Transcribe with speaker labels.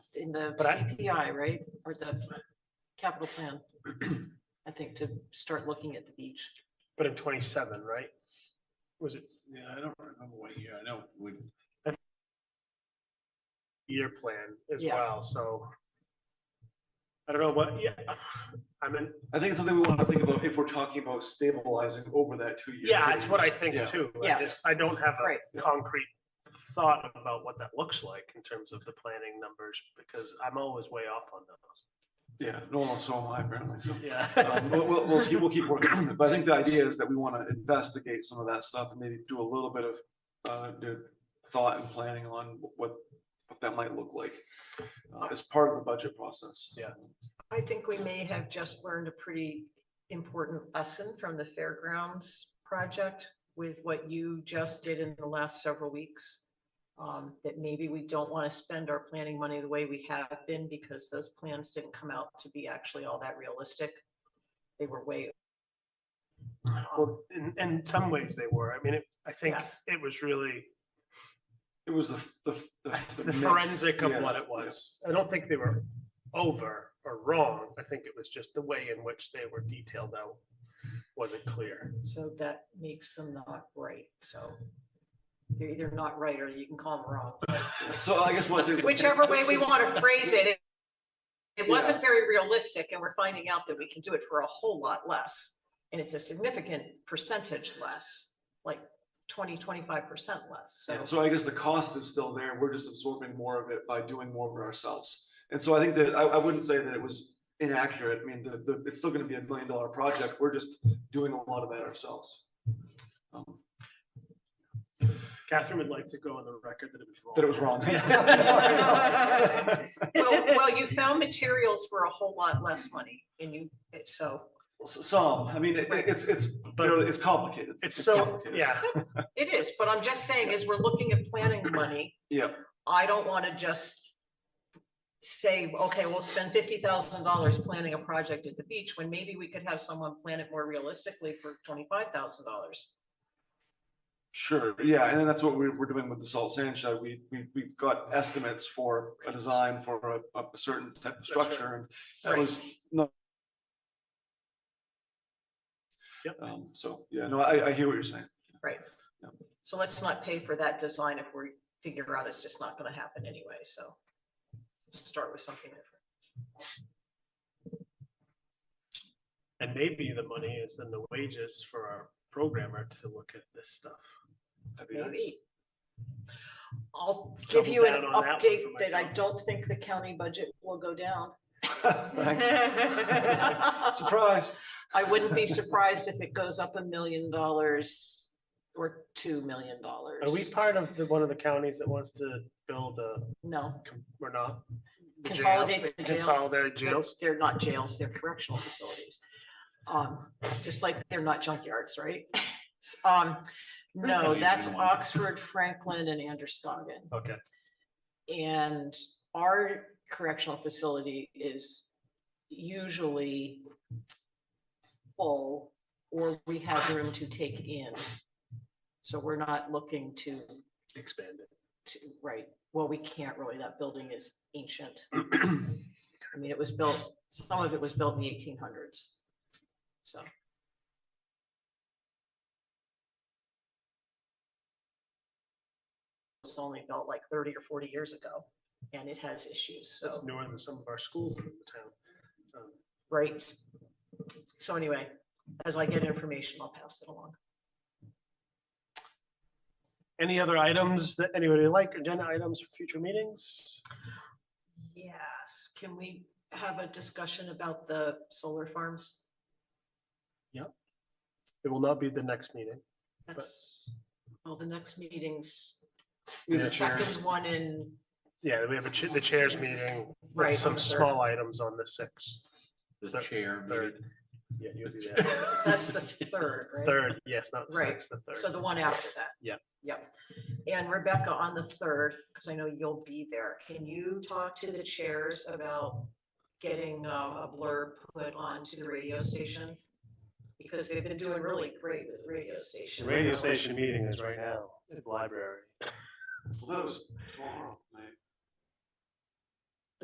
Speaker 1: in the
Speaker 2: But I-
Speaker 1: CPI, right? Or the capital plan, I think, to start looking at the beach.
Speaker 2: But in twenty-seven, right? Was it
Speaker 3: Yeah, I don't remember what year, I know, we,
Speaker 2: year plan as
Speaker 1: Yeah.
Speaker 2: well, so. I don't know, but yeah, I mean,
Speaker 3: I think it's something we want to think about if we're talking about stabilizing over that two year.
Speaker 2: yeah, it's what I think
Speaker 3: Yeah.
Speaker 2: too. I
Speaker 1: Yes.
Speaker 2: just- I don't have
Speaker 1: Right.
Speaker 2: a concrete thought about what that looks like in terms of the planning numbers, because I'm always way off on those.
Speaker 3: Yeah, no, no, so am I apparently, so.
Speaker 2: Yeah.
Speaker 3: Um, We'll, we'll, we'll keep, we'll keep working on it, but I think the idea is that we want to investigate some of that stuff and maybe do a little bit of, uh, do thought and planning on what, what that might look like. Uh, as part of the budget process.
Speaker 2: Yeah.
Speaker 1: I think we may have just learned a pretty important lesson from the fairgrounds project with what you just did in the last several weeks. Um, that maybe we don't want to spend our planning money the way we have been because those plans didn't come out to be actually all that realistic. They were way.
Speaker 2: Well, in, in some ways they were. I mean, it- I think
Speaker 1: Yes.
Speaker 2: it was really
Speaker 3: It was the, the.
Speaker 2: the
Speaker 3: mix,
Speaker 2: forensic of
Speaker 3: yeah,
Speaker 2: what it was. I don't think they were over or wrong. I think it was just the way in which they were detailed out wasn't clear.
Speaker 1: So that makes them not right, so. They're either not right or you can call them wrong.
Speaker 3: yeah. So I guess what I say is.
Speaker 1: Whichever way we want to phrase it. it- It
Speaker 3: Yeah.
Speaker 1: wasn't very realistic and we're finding out that we can do it for a whole lot less. And it's a significant percentage less, like 20, 25 percent less.
Speaker 3: Yeah,
Speaker 1: So
Speaker 3: so I guess the cost is still there. We're just absorbing more of it by doing more of it ourselves. And so I think that I, I wouldn't say that it was inaccurate. I mean, the, the, it's still gonna be a million dollar project. We're just doing a lot of that ourselves. Um,
Speaker 2: Catherine would like to go on the record that it was wrong.
Speaker 3: That it was wrong.
Speaker 1: well, well, you found materials for a whole lot less money and you, so
Speaker 3: S- Some, I mean, it, it's, it's,
Speaker 2: But-
Speaker 3: fairly- it's complicated.
Speaker 2: It's so,
Speaker 3: complicated.
Speaker 2: yeah,
Speaker 1: it is. But I'm just saying is we're looking at planning money.
Speaker 3: Yeah,
Speaker 1: I don't want to just say, okay, we'll spend fifty thousand dollars planning a project at the beach, when maybe we could have someone plan it more realistically for twenty-five thousand dollars.
Speaker 3: Sure, yeah, and then that's what we're, we're doing with the salt sand shed. We, we, we got estimates for a design for a, a certain type
Speaker 2: right.
Speaker 3: of structure and that
Speaker 1: Right.
Speaker 3: was no.
Speaker 2: Yep.
Speaker 3: Um, so, yeah, no, I, I hear what you're saying.
Speaker 1: So let's not pay for that design if we figure out it's just not gonna happen anyway, so. let's Start with something different.
Speaker 2: and maybe the money is in the wages for our programmer to look at this stuff.
Speaker 3: That'd be nice.
Speaker 1: Maybe. I'll give
Speaker 2: Double
Speaker 1: you an
Speaker 2: down on that one for
Speaker 1: update that I
Speaker 2: myself.
Speaker 1: don't think the county budget will go down.
Speaker 3: Thanks, surprise.
Speaker 1: I wouldn't be surprised if it goes up a million dollars or two million dollars.
Speaker 2: Are we part of the, one of the counties that wants to build a,
Speaker 1: No,
Speaker 2: com- we're not? the jail-
Speaker 1: consolidate the jails.
Speaker 2: Consolidate jails?
Speaker 1: They're not jails, they're correctional facilities. Um, just like they're not junkyards, right? Um, no, that's Oxford, Franklin and Anderson.
Speaker 2: Okay,
Speaker 1: And our correctional facility is usually full, or we have room to take in. So we're not looking to,
Speaker 2: expand it.
Speaker 1: to, right, well, we can't really, that building is ancient. I mean, it was built, some of it was built in the eighteen hundreds. So, it's only built like thirty or forty years ago, and it has issues, so.
Speaker 2: That's newer than some of our schools in the town. Um,
Speaker 1: Right. So anyway, as I get information, I'll pass it along.
Speaker 2: Any other items that anybody would like, agenda items for future meetings?
Speaker 1: Yes, can we have a discussion about the solar farms?
Speaker 2: It will not be the next meeting.
Speaker 1: That's, well, the next meeting's
Speaker 3: These
Speaker 2: Yeah.
Speaker 1: the second
Speaker 3: chairs.
Speaker 1: one in,
Speaker 2: Yeah, we have a cha- the chairs meeting
Speaker 1: Right,
Speaker 2: with
Speaker 1: on
Speaker 2: some
Speaker 1: the third.
Speaker 2: small items on the sixth.
Speaker 4: The
Speaker 2: Third-
Speaker 4: chair.
Speaker 2: third.
Speaker 4: muted.
Speaker 2: Yeah, you'll do that.
Speaker 1: that's the third, right?
Speaker 2: Third, yes, not the
Speaker 1: Right,
Speaker 2: sixth, the
Speaker 1: So
Speaker 2: third.
Speaker 1: the one after that.
Speaker 2: Yeah.
Speaker 1: Yep. And Rebecca, on the third, because I know you'll be there, can you talk to the chairs about getting uh, a blurb put onto the radio station? Because they've been doing really great with the radio
Speaker 2: The
Speaker 1: station.
Speaker 2: radio station meeting is right now, at the library.
Speaker 3: Well, That was tomorrow night.